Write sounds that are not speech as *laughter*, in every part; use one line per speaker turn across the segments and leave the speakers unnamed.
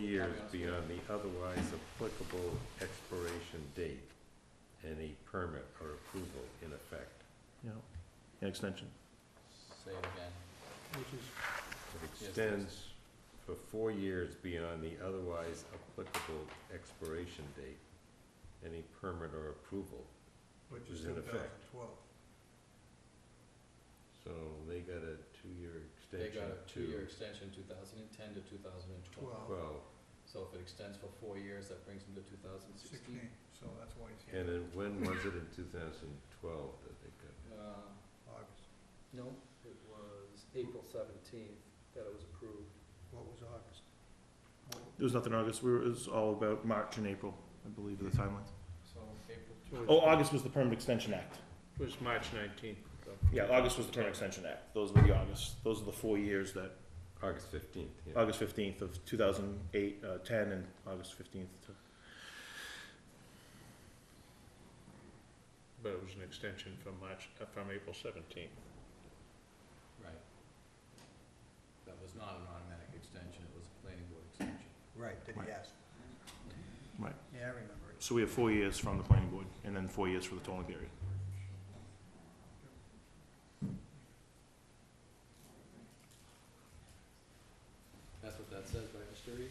years
Caveats.
beyond the otherwise applicable expiration date, any permit or approval in effect.
you know, an extension.
Say it again.
which is,
It
Yes,
extends for four years beyond the otherwise applicable expiration date, any permit or approval.
which is
Is in
two
effect.
thousand twelve.
So they got a two-year
They
extension
got a two-year
to
extension, two thousand and ten to two thousand and twelve.
Twelve,
twelve.
So if it extends for four years, that brings them to two thousand sixteen.
sixteen, so that's why it's
And
here,
then when was it in two thousand twelve that they got?
Uh,
August.
no, it was April seventeenth that it was approved.
What was August? What-
There was nothing in August, we were, it was all about March and April, I believe, are the timelines.
So April
Oh, August was the Permanent Extension Act.
was March nineteenth.
Oh, uh,
Yeah, August was the Permanent Extension Act. Those were the August, those are the four years that,
August fifteenth, yeah.
August fifteenth of two thousand eight, uh, ten, and August fifteenth.
But it was an extension from March, uh, from April seventeenth.
Right. That was not an automatic extension, it was a planning board extension.
Right, did he ask?
Right.
Yeah, I remember it.
So we have four years from the planning board, and then four years for the tolling period.
That's what that says, right, Mr. Reed?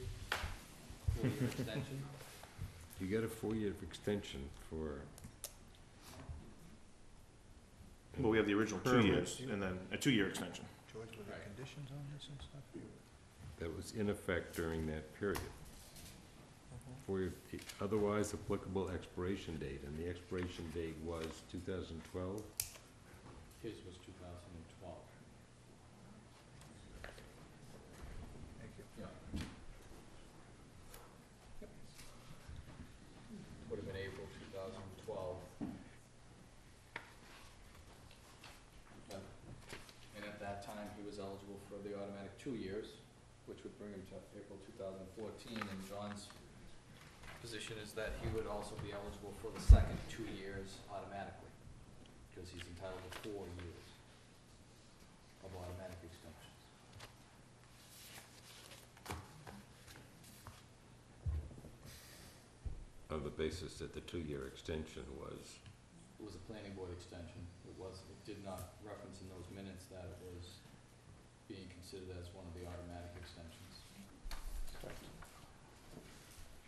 Four-year extension?
You got a four-year extension for.
But we have the original two
Permanent.
years, and then a two-year extension.
George, were there
Right.
conditions on this and stuff?
that was in effect during that period. For the otherwise applicable expiration date, and the expiration date was two thousand twelve?
His was two thousand and twelve.
Thank you.
Yeah. Would have been April two thousand and twelve. And at that time, he was eligible for the automatic two years, which would bring him to April two thousand and fourteen, and John's position is that he would also be eligible for the second two years automatically, because he's entitled to four years of automatic extensions.
On the basis that the two-year extension was,
it was a planning board extension. It was, it did not reference in those minutes that it was being considered as one of the automatic extensions.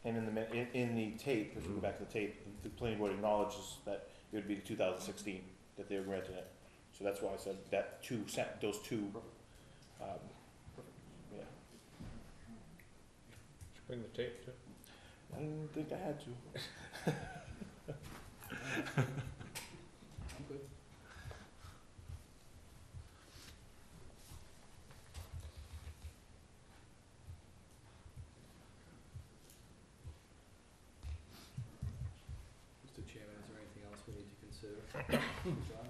And in the, min- in, in the tape, if we go back to the tape, the planning board acknowledges that it would be the two thousand sixteen that they were granting it. So that's why I said that two sent, those two, um, yeah.
Should bring the tape to.
I didn't think I had to.
I'm good. Mr. Chairman, is there anything else we need to *coughs* consider? John?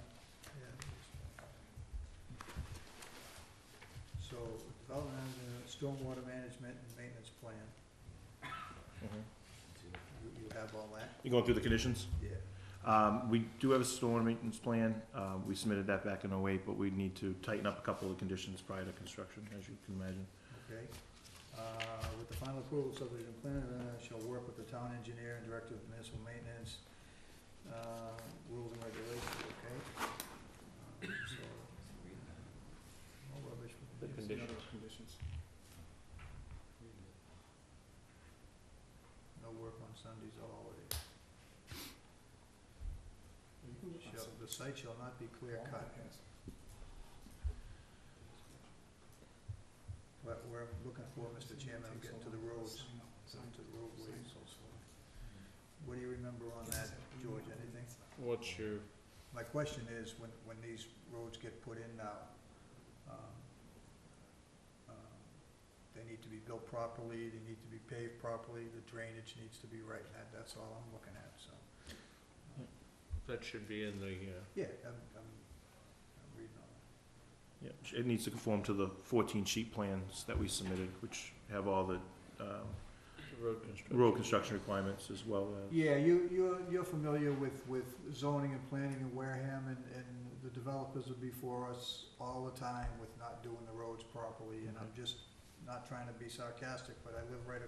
Yeah. So, development of the stormwater management and maintenance plan, you, you have all that?
Mm-hmm. You going through the conditions?
Yeah.
Um, we do have a storm maintenance plan, uh, we submitted that back in 08, but we need to tighten up a couple of conditions prior to construction, as you can imagine.
Okay. Uh, With the final approval, subdivision plan uh, shall work with the town engineer and director of municipal maintenance, uh, rules and regulations, okay? Um, So, no rubbish. with this.
Conditions.
No work on Sundays eh? or holidays. Shall- The site shall not be clear cut. What we're looking for, Mr. Chairman, I'm getting to the roads, I'm to the roadways. What do you remember on that, George, anything?
What's your,
My question is, when, when these roads get put in now, um, um, they need to be built properly, they need to be paved properly, the drainage needs to be right, that, that's all I'm looking at, so.
that should be in the, uh,
Yeah, I'm, I'm, I'm reading all that.
Yeah, it needs to conform to the fourteen sheet plans that we submitted, which have all the, um,
road construction.
rural construction requirements as well as.
Yeah, you, you're, you're familiar with, with zoning and planning in Wareham, and, and the developers are before us all Mm-hmm. the time with not doing the roads properly, and I'm just not trying to be sarcastic, but I live right across